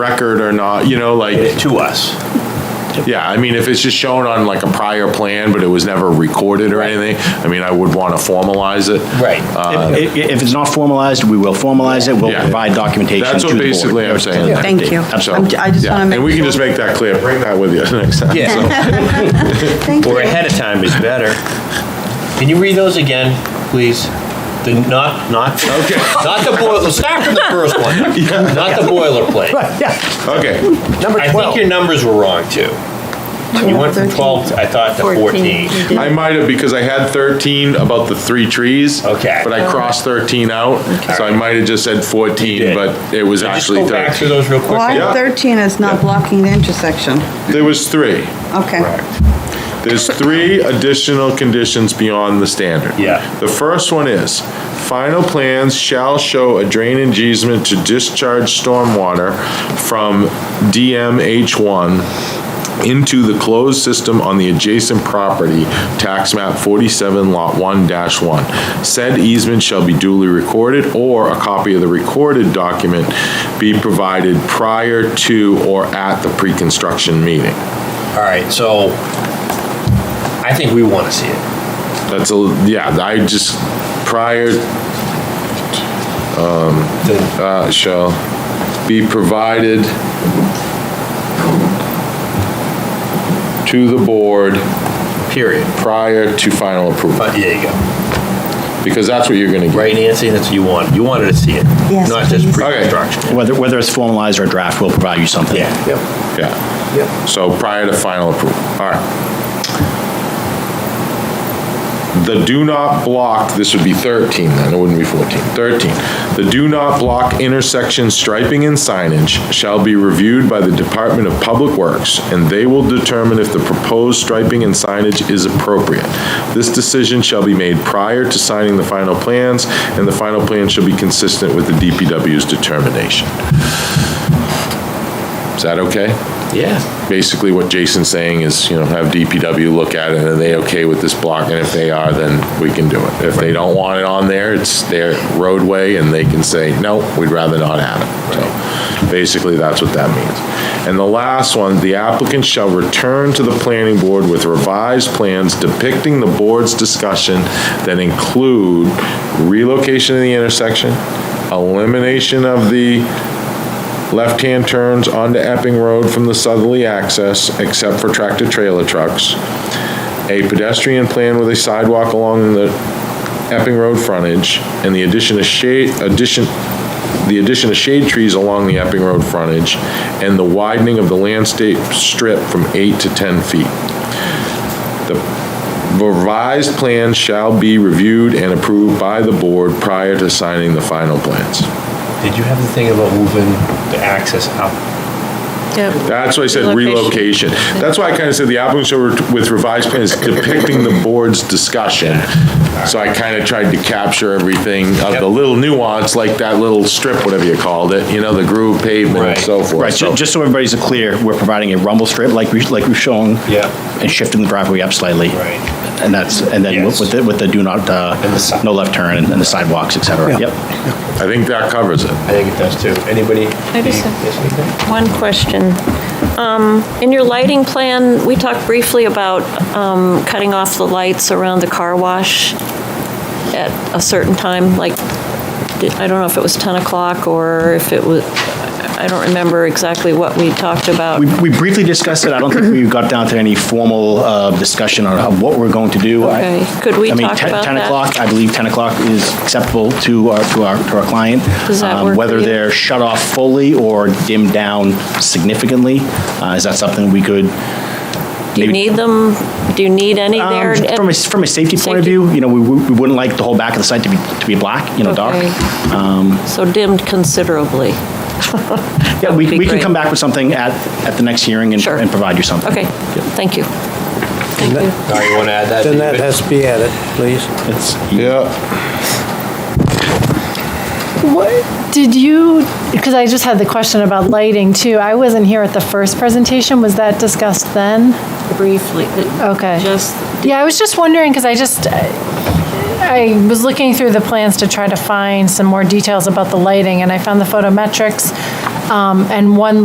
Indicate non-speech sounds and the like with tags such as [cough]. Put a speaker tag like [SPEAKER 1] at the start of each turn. [SPEAKER 1] record or not, you know, like,
[SPEAKER 2] to us.
[SPEAKER 1] yeah, I mean, if it's just shown on like a prior plan, but it was never recorded or anything, I mean, I would want to formalize it.
[SPEAKER 3] Right.
[SPEAKER 1] Uh,
[SPEAKER 2] If, if- if it's not formalized, we will formalize it, we'll
[SPEAKER 1] Yeah.
[SPEAKER 2] provide documentation to
[SPEAKER 1] That's
[SPEAKER 2] the
[SPEAKER 1] what
[SPEAKER 2] board.
[SPEAKER 1] basically I'm saying.
[SPEAKER 4] Thank you.
[SPEAKER 1] So,
[SPEAKER 4] I'm j- I just
[SPEAKER 1] yeah,
[SPEAKER 4] wanna make
[SPEAKER 1] And we can
[SPEAKER 4] sure.
[SPEAKER 1] just make that clear, bring that with you next
[SPEAKER 3] [laughs]
[SPEAKER 1] time.
[SPEAKER 4] [laughs]
[SPEAKER 3] Yeah,
[SPEAKER 4] Thank you.
[SPEAKER 3] or ahead of time is better. Can you read those again, please? The, not, not,
[SPEAKER 1] Okay.
[SPEAKER 3] not the boiler, start from the first [laughs] one, not the boilerplate.
[SPEAKER 2] Right, yeah.
[SPEAKER 1] Okay.
[SPEAKER 2] Number
[SPEAKER 3] I think
[SPEAKER 2] 12.
[SPEAKER 3] your numbers were wrong, too. You went from 12, I thought, to 14.
[SPEAKER 4] You did.
[SPEAKER 1] I might have, because I had 13 about the three trees.
[SPEAKER 3] Okay.
[SPEAKER 1] But I crossed 13 out, so I might have just said
[SPEAKER 3] You
[SPEAKER 1] 14,
[SPEAKER 3] did.
[SPEAKER 1] but it was
[SPEAKER 3] Just
[SPEAKER 1] actually
[SPEAKER 3] go back through
[SPEAKER 1] 13.
[SPEAKER 3] those real quick.
[SPEAKER 1] Yeah.
[SPEAKER 4] Well, 13 is not blocking the intersection.
[SPEAKER 1] There was three.
[SPEAKER 4] Okay.
[SPEAKER 1] There's three additional conditions beyond the standard.
[SPEAKER 3] Yeah.
[SPEAKER 1] The first one is, final plans shall show a drainage easement to discharge stormwater from DMH1 into the closed system on the adjacent property, tax map 47, lot 1-1. Said easement shall be duly recorded, or a copy of the recorded document be provided prior to or at the pre-construction meeting.
[SPEAKER 3] All right, so I think we want to see it.
[SPEAKER 1] That's a, yeah, I just, prior,
[SPEAKER 3] The-
[SPEAKER 1] uh, shall be provided to the board
[SPEAKER 3] Period.
[SPEAKER 1] prior to final approval,
[SPEAKER 3] But there you go.
[SPEAKER 1] because that's what you're gonna get.
[SPEAKER 3] Right, Nancy, that's what you want. You wanted to see it.
[SPEAKER 4] Yes,
[SPEAKER 3] Not just
[SPEAKER 4] please.
[SPEAKER 3] pre-construction.
[SPEAKER 2] Whether, whether it's formalized or draft, we'll provide you something.
[SPEAKER 3] Yeah. Yep.
[SPEAKER 1] Yeah,
[SPEAKER 3] Yep.
[SPEAKER 1] so prior to final approval, all right. The do not block, this would be 13 then, it wouldn't be 14, 13. The do not block intersection striping and signage shall be reviewed by the Department of Public Works, and they will determine if the proposed striping and signage is appropriate. This decision shall be made prior to signing the final plans, and the final plan shall be consistent with the DPW's determination. Is that okay?
[SPEAKER 3] Yeah.
[SPEAKER 1] basically what Jason's saying is, you know, have DPW look at it, and are they okay with this block? And if they are, then we can do it. If they don't want it on there, it's their roadway, and they can say, no, we'd rather not have it. So basically, that's what that means. And the last one, the applicant shall return to the planning board with revised plans depicting the board's discussion that include relocation of the intersection, elimination of the left-hand turns onto Epping Road from the southerly access, except for tractor-trailer trucks, a pedestrian plan with a sidewalk along the Epping Road frontage, and the addition of shade, addition, the addition of shade trees along the Epping Road frontage, and the widening of the landscape strip from eight to 10 feet. The revised plan shall be reviewed and approved by the board prior to signing the final plans.
[SPEAKER 3] Did you have the thing about moving the access up?
[SPEAKER 1] That's why I said relocation. That's why I kind of said the applicant shall re- with revised plans depicting the board's discussion. So I kind of tried to capture everything of
[SPEAKER 3] Yep.
[SPEAKER 1] the little nuance, like that little strip, whatever you called it, you know, the groove pavement and
[SPEAKER 3] Right.
[SPEAKER 1] so forth.
[SPEAKER 2] Right,
[SPEAKER 1] So
[SPEAKER 2] ju- just so everybody's clear, we're providing a rumble strip like we, like we've shown.
[SPEAKER 3] Yeah.
[SPEAKER 2] And shifting the driveway up slightly.
[SPEAKER 3] Right.
[SPEAKER 2] And that's, and then with-
[SPEAKER 3] Yes.
[SPEAKER 2] with the, with the do not, uh,
[SPEAKER 3] And the si-
[SPEAKER 2] no left turn and the sidewalks, et cetera. Yep.
[SPEAKER 1] I think that covers it.
[SPEAKER 3] I think it does too. Anybody?
[SPEAKER 5] I just have-
[SPEAKER 3] Yes, anything?
[SPEAKER 5] One question. Um, In your lighting plan, we talked briefly about um, cutting off the lights around the car wash at a certain time, like, did- I don't know if it was 10 o'clock or if it was, I don't remember exactly what we talked about.
[SPEAKER 2] We we briefly discussed it, I don't think we got down to any formal uh, discussion on how- what we're going to do. I-
[SPEAKER 5] Okay. Could we
[SPEAKER 2] I mean,
[SPEAKER 5] talk
[SPEAKER 2] 10
[SPEAKER 5] about
[SPEAKER 2] 10
[SPEAKER 5] that?
[SPEAKER 2] o'clock, I believe 10 o'clock is acceptable to our, to our, to our client.
[SPEAKER 5] Does that
[SPEAKER 2] Um,
[SPEAKER 5] work for
[SPEAKER 2] Whether
[SPEAKER 5] you?
[SPEAKER 2] they're shut off fully or dimmed down significantly, uh, is that something we could?
[SPEAKER 5] Do you
[SPEAKER 2] maybe-
[SPEAKER 5] need them? Do you need any
[SPEAKER 2] Um,
[SPEAKER 5] there? at-
[SPEAKER 2] From a, from a safety point of
[SPEAKER 5] Safety.
[SPEAKER 2] view, you know, we we we wouldn't like the whole back of the site to be, to be black, you know, dark. Um,
[SPEAKER 5] Okay. So dimmed considerably.
[SPEAKER 2] Yeah, we
[SPEAKER 5] would be
[SPEAKER 2] we can
[SPEAKER 5] great.
[SPEAKER 2] come back with something at, at the next hearing and
[SPEAKER 5] Sure.
[SPEAKER 2] and provide you something.
[SPEAKER 5] Okay, thank you. Thank you.
[SPEAKER 3] Sorry, you want to add that?
[SPEAKER 6] Then that
[SPEAKER 3] David?
[SPEAKER 6] has to be added, please.
[SPEAKER 2] It's-
[SPEAKER 1] Yeah.
[SPEAKER 7] What, did you, because I just had the question about lighting too. I wasn't here at the first presentation. Was that discussed then?
[SPEAKER 5] Briefly.
[SPEAKER 7] Okay.
[SPEAKER 5] Just,
[SPEAKER 7] Yeah, I was just wondering, because I just, I was looking through the plans to try to find some more details about the lighting, and I found the photometrics, um, and one